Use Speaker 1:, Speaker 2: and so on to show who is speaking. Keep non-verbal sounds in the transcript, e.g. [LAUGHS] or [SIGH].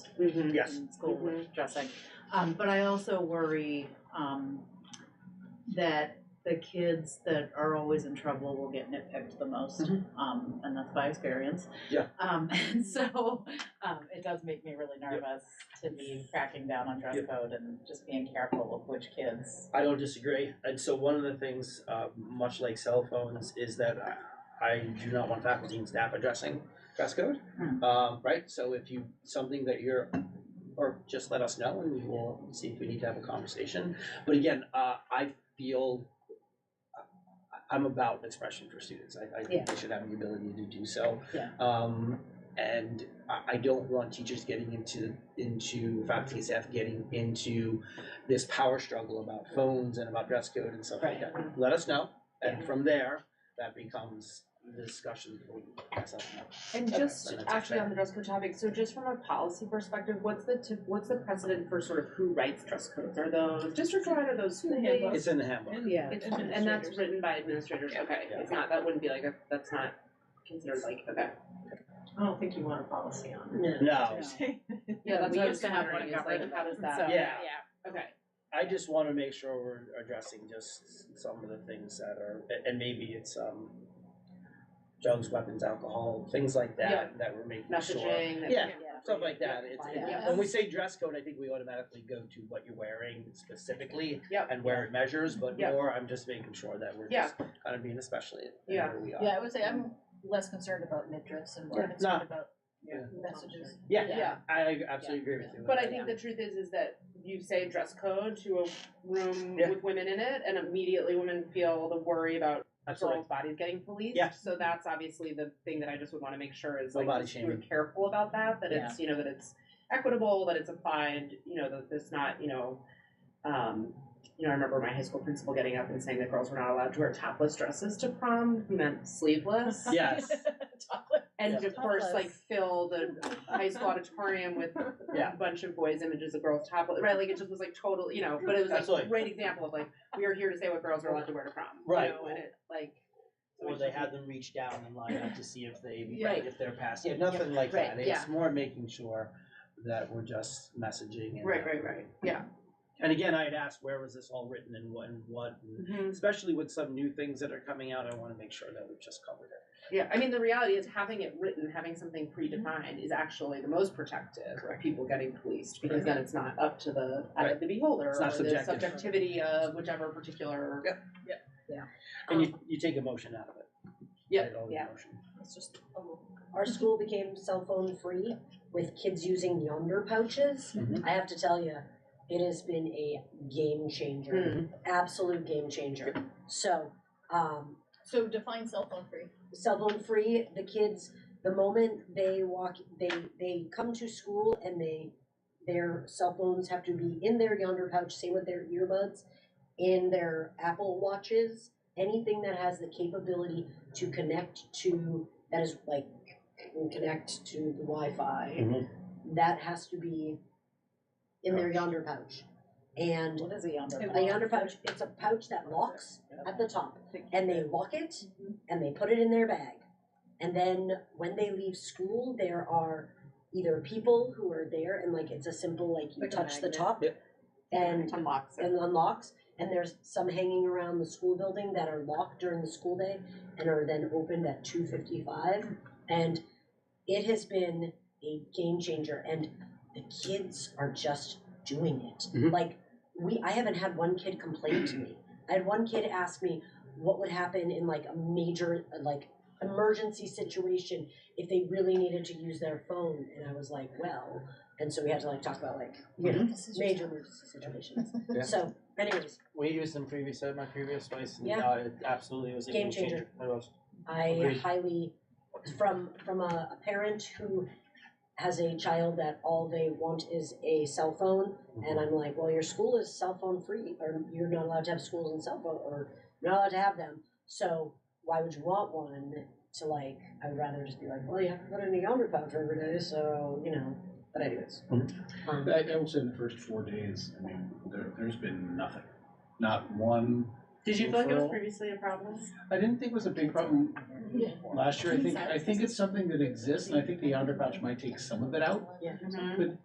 Speaker 1: Mhm, yes.
Speaker 2: and Mm-hmm. school
Speaker 1: Mhm.
Speaker 2: dressing. Um, but I also worry, um, that the kids that are always in trouble will get nitpicked the most.
Speaker 1: Mhm.
Speaker 2: Um, and that's by experience.
Speaker 1: Yeah.
Speaker 2: Um, [LAUGHS] and so, um, it does make me really nervous to be cracking down on dress
Speaker 1: Yep.
Speaker 2: code and just being careful of which kids.
Speaker 3: I don't disagree. And so one of the things, uh, much like cell phones, is that I, I do not want faculty and staff addressing dress code.
Speaker 2: Hmm.
Speaker 3: Um, right? So if you, something that you're, or just let us know and we will see if we need to have a conversation. But again, uh, I feel, I- I'm about expression for students. I, I think they should have the ability to do so.
Speaker 2: Yeah.
Speaker 3: Um, and I, I don't want teachers getting into, into faculty and staff getting into this power struggle about phones and about dress code and stuff like that.
Speaker 2: Oh,
Speaker 3: Let us know, and from there, that becomes the discussion. that we can have.
Speaker 4: And
Speaker 3: Okay,
Speaker 4: just
Speaker 3: then that's
Speaker 4: actually
Speaker 3: fair.
Speaker 4: on the dress code topic, so just from a policy perspective, what's the tip, what's the precedent for sort of who writes dress codes? Are those district wide or those
Speaker 5: In the
Speaker 4: they-
Speaker 5: handbook.
Speaker 3: It's in the handbook.
Speaker 2: Yeah.
Speaker 4: It's, and that's written by administrators, okay,
Speaker 3: Yeah.
Speaker 4: it's not, that wouldn't be like a, that's not considered like, okay.
Speaker 5: I don't think you want a policy on
Speaker 3: No,
Speaker 4: Yeah, that's
Speaker 2: we
Speaker 4: what I
Speaker 2: used
Speaker 4: was
Speaker 2: to have one
Speaker 4: wondering, is like,
Speaker 2: government,
Speaker 4: how does
Speaker 2: so-
Speaker 4: that,
Speaker 3: yeah,
Speaker 4: okay,
Speaker 3: I just wanna make sure we're addressing just some of the things that are, a- and maybe it's, um, drugs, weapons, alcohol, things like that, that we're making sure.
Speaker 4: messaging. that-
Speaker 3: Yeah,
Speaker 2: Yeah.
Speaker 3: stuff like that. It's, it-
Speaker 2: Yeah.
Speaker 3: when we say dress code, I think we automatically go to what you're wearing specifically
Speaker 4: Yep.
Speaker 3: and where it measures, but
Speaker 4: Yep.
Speaker 3: more, I'm just making sure that we're
Speaker 4: Yeah.
Speaker 3: just kind of being especially in
Speaker 4: Yeah.
Speaker 3: where we are.
Speaker 5: Yeah, I would say I'm less concerned about midriffs and more
Speaker 3: Yeah.
Speaker 5: concerned
Speaker 3: No.
Speaker 5: about
Speaker 3: Yeah.
Speaker 5: messages. [LAUGHS]
Speaker 3: Yeah,
Speaker 4: Yeah.
Speaker 3: I absolutely agree with you.
Speaker 4: But I think the truth is, is that you say dress code to a room
Speaker 3: Yeah.
Speaker 4: with women in it, and immediately women feel the worry about
Speaker 3: Absolutely.
Speaker 4: girls' bodies getting policed.
Speaker 3: Yeah.
Speaker 4: So that's obviously the thing that I just would want to make sure is
Speaker 3: No
Speaker 4: like
Speaker 3: body
Speaker 4: just we're
Speaker 3: shaming.
Speaker 4: careful about that. That it's you know that it's equitable, that it's applied. You know that it's not you know. Um, you know, I remember my high school principal getting up and saying that girls were not allowed to wear topless dresses to prom, who meant sleeveless.
Speaker 3: [LAUGHS] [LAUGHS]
Speaker 4: [LAUGHS]
Speaker 3: Yes,
Speaker 4: And
Speaker 3: Yeah.
Speaker 4: of course,
Speaker 5: Topless.
Speaker 4: like fill the high school auditorium with
Speaker 3: Yeah.
Speaker 4: a bunch of boys' images of girls topless, right? Like it just was like total, you know. But it was like
Speaker 3: Absolutely.
Speaker 4: a great example of like we are here to say what girls are allowed to wear to prom, you
Speaker 3: Right.
Speaker 4: know, and it like so
Speaker 3: or
Speaker 4: it's
Speaker 3: they
Speaker 4: just-
Speaker 3: had them reach down and line up to see if they,
Speaker 5: Right.
Speaker 3: if they're passed, yeah, nothing like
Speaker 4: Right,
Speaker 3: that.
Speaker 4: yeah.
Speaker 3: It's more making sure that we're just messaging and.
Speaker 4: right, right, right, [LAUGHS] yeah.
Speaker 3: And again, I had asked, where was this all written and what, and what, and
Speaker 4: Mm-hmm.
Speaker 3: especially with some new things that are coming out, I wanna make sure that we've just covered it.
Speaker 4: Yeah, I mean, the reality is having it written, having something predefined is actually the most protective of people getting policed because then it's not up to the eye of the beholder
Speaker 3: It's not
Speaker 4: or
Speaker 3: subjective.
Speaker 4: the subjectivity of whichever particular.
Speaker 3: Yep. And you, you take emotion out of it.
Speaker 4: Yeah,
Speaker 3: It all
Speaker 4: yeah.
Speaker 3: emotion.
Speaker 6: It's just, um, our school became cell phone free with kids using yonder pouches.
Speaker 3: Mhm.
Speaker 6: I have to tell you, it has been a game changer, absolute game changer. So, um,
Speaker 5: So define cell phone free.
Speaker 6: cell phone free, the kids, the moment they walk, they, they come to school and they, their cell phones have to be in their yonder pouch, same with their earbuds, in their Apple watches, anything that has the capability to connect to, that is like, can connect to the Wi-Fi,
Speaker 3: Mhm.
Speaker 6: that has to be in their yonder pouch. And
Speaker 2: What is a yonder?
Speaker 6: a
Speaker 2: box?
Speaker 6: yonder pouch, it's a pouch that locks at the top, and they lock it,
Speaker 5: Mhm.
Speaker 6: and they put it in their bag. And then when they leave school, there are either people who are there, and like it's a simple like you
Speaker 5: Like a
Speaker 6: touch the
Speaker 5: magnet.
Speaker 6: top,
Speaker 3: Yep.
Speaker 6: and
Speaker 4: unlocks it.
Speaker 6: and unlocks. And there's some hanging around the school building that are locked during the school day and are then opened at two fifty five. And it has been a game changer and the kids are just doing it.
Speaker 3: Mhm.
Speaker 6: Like we I haven't had one kid complain to me. I had one kid ask me what would happen in like a major like emergency situation if they really needed to use their phone and I was like, well, and so we had to like talk about like, you know,
Speaker 5: This is just-
Speaker 6: major emergency situations.
Speaker 3: Yeah.
Speaker 6: So, anyways,
Speaker 3: We used them previous at my previous place, and
Speaker 6: Yeah.
Speaker 3: uh, it absolutely was a game,
Speaker 6: Game changer.
Speaker 3: It was.
Speaker 6: I
Speaker 3: Agreed.
Speaker 6: highly, from from a, a parent who has a child that all they want is a cell phone, and I'm like, well, your school is cell phone free, or you're not allowed to have schools and cell phone, or you're not allowed to have them. So why would you want one? To like, I would rather just be like, well, you have to put it in a yonder pouch every day, so you know. But anyways, um,
Speaker 7: I, I will say in the first four days, I mean, there, there's been nothing. Not one,
Speaker 4: Did you feel like it was
Speaker 7: Referral.
Speaker 4: previously a problem?
Speaker 7: I didn't think it was a big problem
Speaker 5: Yeah.
Speaker 7: last year. I think, I think it's something that exists and I think the outer pouch might take some of it out.
Speaker 6: yeah.